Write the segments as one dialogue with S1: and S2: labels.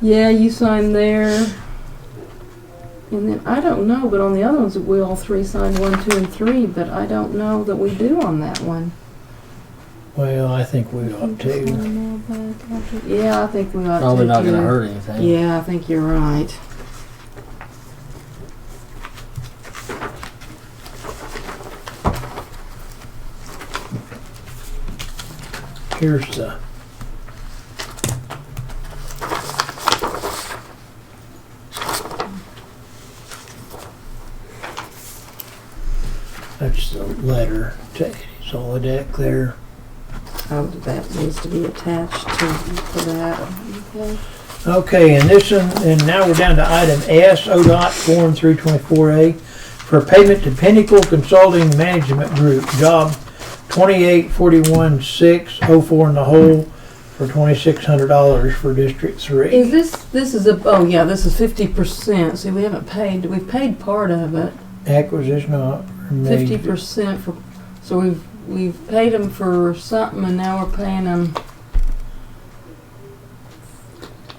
S1: Yeah, you sign there. And then, I don't know, but on the other ones, we all three signed one, two, and three, but I don't know that we do on that one.
S2: Well, I think we ought to.
S1: Yeah, I think we ought to.
S3: Probably not gonna
S1: too.
S3: hurt anything.
S1: Yeah, I think you're right.
S2: Here's the, that's the letter to Eddie Solidak there.
S1: Oh, that needs to be attached to, to that. Okay.
S2: Okay, and this one, and now we're down to item S, ODOT Form 324A, for payment to Pinnacle Consulting Management Group, job 2841604 in the hole for $2,600 for District 3.
S1: Is this, this is a, oh yeah, this is fifty percent. See, we haven't paid, we've paid part of it.
S2: Acquisition of...
S1: Fifty percent for, so we've, we've paid them for something and now we're paying them.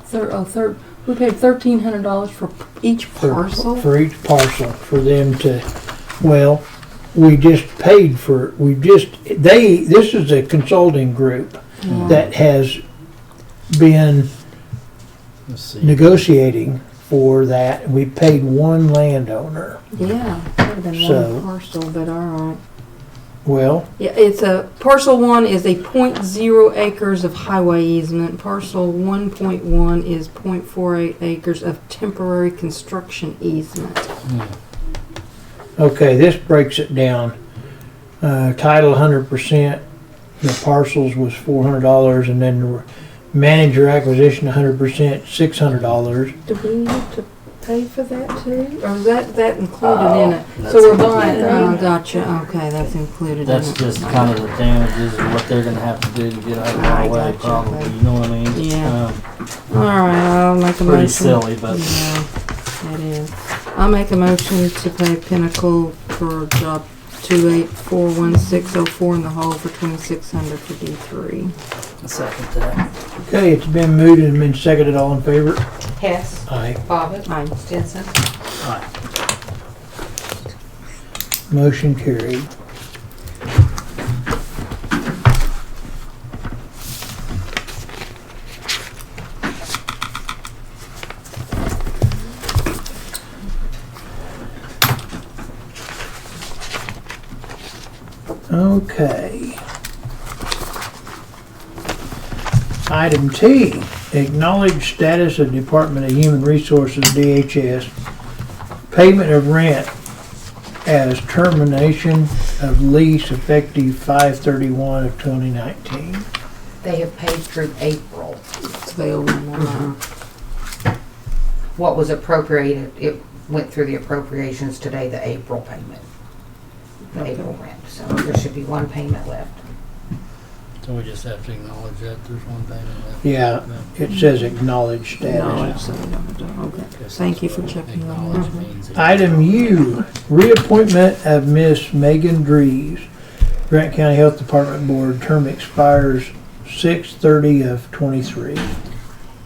S1: Thir, oh, thir, we paid thirteen hundred dollars for each
S2: for-
S1: parcel?
S2: For each parcel, for them to, well, we just paid for, we just, they, this is a consulting group
S1: Yeah.
S2: that has been
S3: Let's see.
S2: negotiating for that. We paid one landowner.
S1: Yeah, could have been
S2: So-
S1: one parcel, but all right.
S2: Well,
S1: Yeah, it's a, parcel one is a point zero acres of highway easement. Parcel one point one is point four eight acres of temporary construction easement.
S2: okay, this breaks it down. Uh, title hundred percent, the parcels was four hundred dollars and then the manager acquisition hundred percent, six hundred dollars.
S1: Do we need to pay for that too? Or is that, that included in it?
S3: Oh,
S1: So we're
S3: that's
S1: buying,
S3: included.
S1: oh, gotcha, okay, that's included in it.
S3: That's just kind of the damages and what they're gonna have to do to get out of
S1: I
S3: our way,
S1: gotcha.
S3: probably, you know what I mean? It's
S1: Yeah.
S3: kinda
S1: All right, I'll make a motion.
S3: Pretty silly, but
S1: Yeah, it is. I'll make a motion to pay Pinnacle for job two eight four one six oh four in the hole for twenty-six hundred for D three.
S3: I second that.
S2: Okay, it's been moved and been seconded. All in favor?
S4: Hess,
S2: Aye.
S4: Bobbit,
S1: Aye.
S4: Stinson.
S2: Motion carried. Okay. Item T, acknowledge status of Department of Human Resources, DHS, payment of rent as termination of lease effective five thirty-one of twenty nineteen.
S4: They have paid through April.
S1: It's available
S3: Mm-hmm.
S4: Mm-hmm.
S1: now.
S4: What was appropriated, it went through the appropriations today, the April payment. The April rent, so there should be one payment left.
S3: So we just have to acknowledge that there's one thing
S2: Yeah, it says acknowledged status.
S1: No, so we don't have to- okay.
S3: that.
S1: Thank you for checking on
S3: Acknowledge
S1: that.
S3: means it-
S2: Item U, reappointment of Miss Megan Drees, Grant County Health Department Board, term expires six thirty of twenty-three.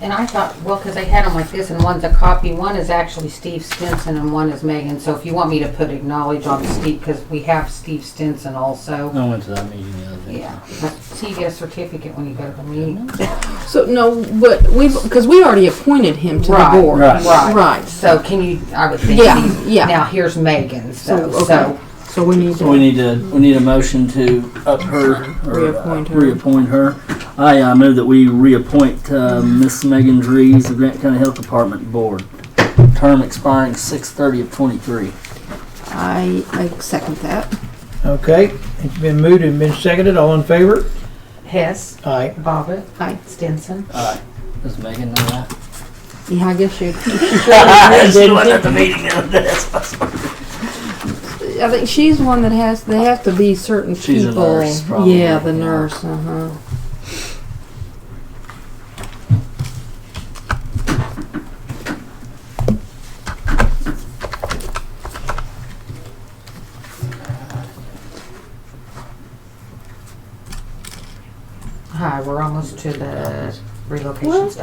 S4: And I thought, well, because they had them like this, and one's a copy, one is actually Steve Stinson and one is Megan. So if you want me to put acknowledge on Steve, because we have Steve Stinson also.
S3: I went to that meeting the other day.
S4: Yeah, but so you get a certificate when you go to the meeting.
S1: So, no, but we've, cause we already appointed him to the
S4: Right,
S1: board.
S3: right.
S1: Right,
S4: So can you, I would think,
S1: Yeah,
S4: he's-
S1: yeah.
S4: now here's Megan's though,
S1: So, okay.
S4: so.
S1: so we need
S3: So we
S1: to,
S3: need to, we need a motion to up her. or, uh,
S1: Reappoint her.
S3: Reappoint her. I, uh move that we reappoint, uh, Miss Megan Drees, the Grant County Health Department Board. Term expiring six thirty of twenty-three.
S1: I, I second that.
S2: Okay, it's been moved and been seconded. All in favor?
S4: Hess,
S2: Aye.
S4: Bobbit,
S1: Aye.
S4: Stinson.
S3: Aye. Does Megan uh, know that?
S1: Yeah, I guess you,
S3: She was at the meeting the other day.
S1: I think she's one that has, they have to be certain people.
S3: She's a nurse, probably,
S1: Yeah, the
S3: yeah.
S1: nurse, uh-huh.
S4: Hi, we're almost to the relocation stuff.